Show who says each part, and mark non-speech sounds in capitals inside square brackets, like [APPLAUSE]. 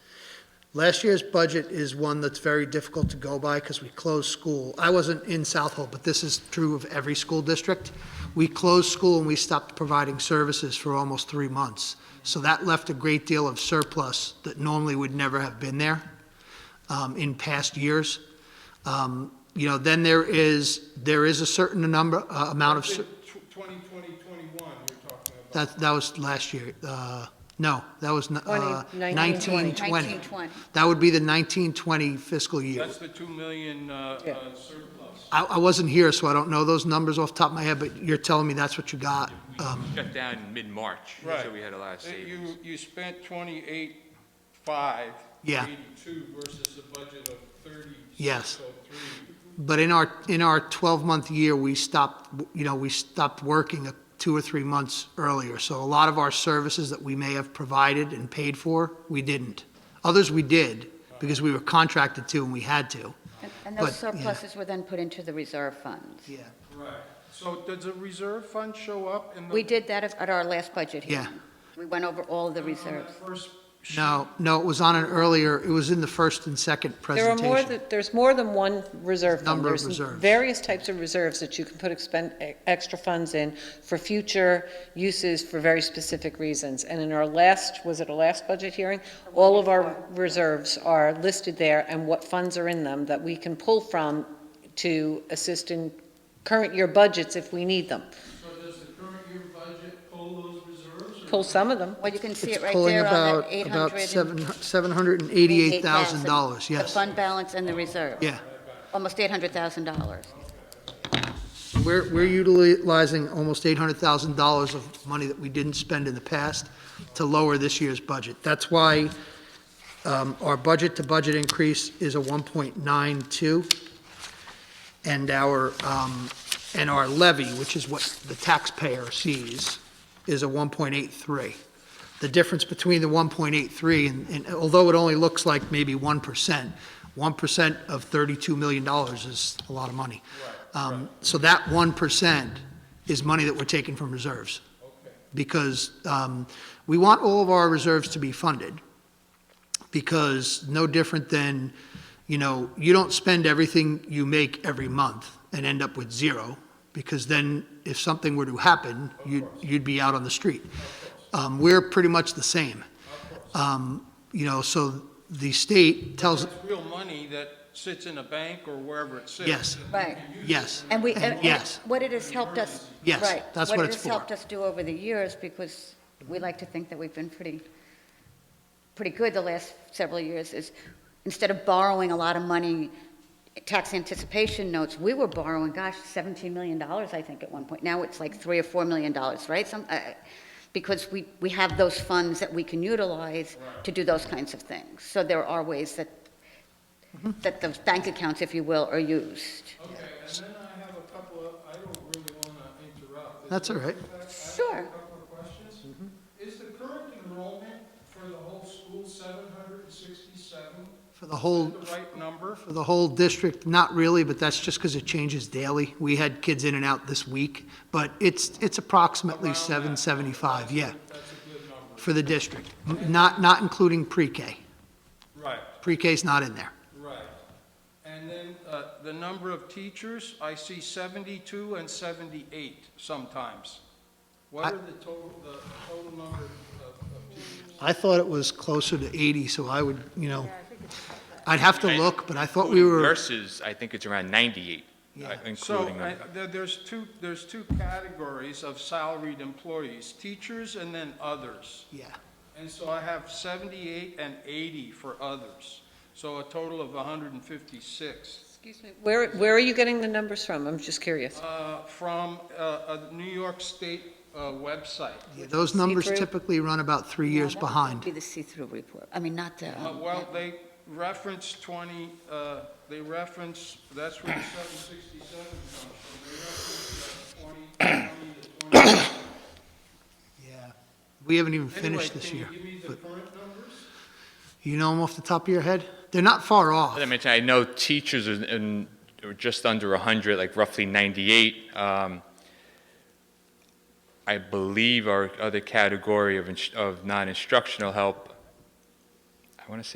Speaker 1: Last year's budget is one that's very difficult to go by because we closed school. I wasn't in Southhold, but this is true of every school district. We closed school and we stopped providing services for almost three months. So that left a great deal of surplus that normally would never have been there um, in past years. Um, You know, then there is, there is a certain number, uh, amount of, cer-
Speaker 2: Twenty twenty, twenty-one, you're talking about.
Speaker 1: that, that was last year. Uh, No, that was
Speaker 3: Twenty,
Speaker 1: 1920.
Speaker 4: 1920.
Speaker 1: That would be the 1920 fiscal year.
Speaker 2: That's the two million uh,
Speaker 3: Yeah.
Speaker 2: uh, surplus.
Speaker 1: I, I wasn't here, so I don't know those numbers off the top of my head, but you're telling me that's what you got. Um,
Speaker 5: shut down in mid-March, so we had a lot of
Speaker 2: Right.
Speaker 5: savings.
Speaker 2: You, you spent twenty-eight, five.
Speaker 1: Yeah.
Speaker 2: Eighty-two versus a budget of thirty.
Speaker 1: Yes. But in our, in our 12-month year, we stopped, you know, we stopped working a- two or three months earlier. So a lot of our services that we may have provided and paid for, we didn't. Others we did, because we were contracted to and we had to.
Speaker 4: And- And
Speaker 1: But,
Speaker 4: those
Speaker 1: yeah.
Speaker 4: surpluses were then put into the reserve funds.
Speaker 1: Yeah.
Speaker 2: Right. So does the reserve fund show up in the?
Speaker 4: We did that at our last budget hearing.
Speaker 1: Yeah.
Speaker 4: We went over all the
Speaker 2: on that
Speaker 4: reserves.
Speaker 2: first sheet?
Speaker 1: No, no, it was on an earlier, it was in the first and second
Speaker 3: There are
Speaker 1: presentation.
Speaker 3: more, than- there's more than one reserve fund.
Speaker 1: Number of
Speaker 3: There's
Speaker 1: reserves.
Speaker 3: Various types of reserves that you can put expend, e- extra funds in for future uses for very specific reasons. And in our last, was it our last budget hearing? All of our reserves are listed there and what funds are in them that we can pull from to assist in current year budgets if we need them.
Speaker 2: So does the current year budget pull those reserves? or-
Speaker 3: Pull some of them.
Speaker 4: Well, you can see
Speaker 1: It's
Speaker 4: it right
Speaker 1: pulling
Speaker 4: there on
Speaker 1: about,
Speaker 4: the 800.
Speaker 1: about
Speaker 4: and-
Speaker 1: seven $788,000,
Speaker 4: The
Speaker 1: yes.
Speaker 4: fund balance and the reserve.
Speaker 1: Yeah.
Speaker 4: Almost $800,000.
Speaker 1: We're, we're utilizing almost $800,000 of money that we didn't spend in the past to lower this year's budget. That's why um, our budget-to-budget increase is a 1.92, and our, um, and our levy, which is what the taxpayer sees, is a 1.83. The difference between the 1.83, and- and although it only looks like maybe 1%, 1% of $32 million is a lot of money. Um, So that 1% is money that we're taking from reserves. Because um, we want all of our reserves to be funded, because no different than, you know, you don't spend everything you make every month and end up with zero, because then if something were to happen, you'd, you'd be out on the street. Um, We're pretty much the same. Um, You know, so the state tells,
Speaker 2: That's real money that sits in a bank or wherever it sits.
Speaker 1: yes,
Speaker 4: Right.
Speaker 1: yes,
Speaker 4: And we, and- and
Speaker 1: Yes.
Speaker 4: what it has helped us.
Speaker 1: Yes,
Speaker 4: right,
Speaker 1: that's what it's
Speaker 4: it
Speaker 1: for.
Speaker 4: has helped us do over the years, because we like to think that we've been pretty, pretty good the last several years, is instead of borrowing a lot of money, tax anticipation notes, we were borrowing, gosh, $17 million, I think, at one point. Now it's like 3 or $4 million, right? Some, uh, because we, we have those funds that we can utilize to do those kinds of things. So there are ways that,
Speaker 1: Mm-hmm.
Speaker 4: that the bank accounts, if you will, are used.
Speaker 2: Okay, and then I have a couple of, I don't really want to interrupt. Is
Speaker 1: That's
Speaker 2: it
Speaker 1: all right. Mm-hmm.
Speaker 2: okay if I- I have
Speaker 4: Sure.
Speaker 2: a couple of questions. Is the current enrollment for the whole school 767?
Speaker 1: for the whole,
Speaker 2: The right number?
Speaker 1: for the whole district, not really, but that's just because it changes daily. We had kids in and out this week, but it's, it's approximately
Speaker 2: Around that.
Speaker 1: 775, yeah,
Speaker 2: That's a good number.
Speaker 1: for the district, not, not including pre-K.
Speaker 2: Right,
Speaker 1: Pre-K's not in there.
Speaker 2: right. And then uh, the number of teachers, I see 72 and 78 sometimes. What
Speaker 1: I-
Speaker 2: are the total, the total number of of teachers?
Speaker 1: I thought it was closer to 80, so I would, you know, I'd have to look, but I thought we were,
Speaker 5: Nurses, I think it's around 98, uh,
Speaker 1: Yeah.
Speaker 2: So
Speaker 5: including
Speaker 2: I-
Speaker 5: them.
Speaker 2: there- there's two, there's two categories of salaried employees, teachers and then others.
Speaker 1: yeah.
Speaker 2: And so I have 78 and 80 for others, so a total of 156
Speaker 3: Excuse me. Where, where are you getting the numbers from? I'm just curious.
Speaker 2: uh, from uh, a New York State uh, website.
Speaker 1: Yeah, Those numbers
Speaker 3: See-through?
Speaker 1: typically run about three
Speaker 4: No,
Speaker 1: years
Speaker 4: that would
Speaker 1: behind.
Speaker 4: Be the see-through report, I mean, not the.
Speaker 2: Uh,
Speaker 4: um,
Speaker 2: Well, they reference 20, uh, they reference, that's where the 767 comes from. They reference uh, 20, 20
Speaker 1: [COUGHS]
Speaker 2: to 20.
Speaker 1: Yeah. We haven't even
Speaker 2: Anyway,
Speaker 1: finished this
Speaker 2: can you
Speaker 1: year.
Speaker 2: give me the
Speaker 1: but
Speaker 2: current numbers?
Speaker 1: You know them off the top of your head? They're not far off.
Speaker 5: As I mentioned, I know teachers are in, are just under 100, like roughly 98. Um, I believe our other category of, ins- of non-instructional help, I want to say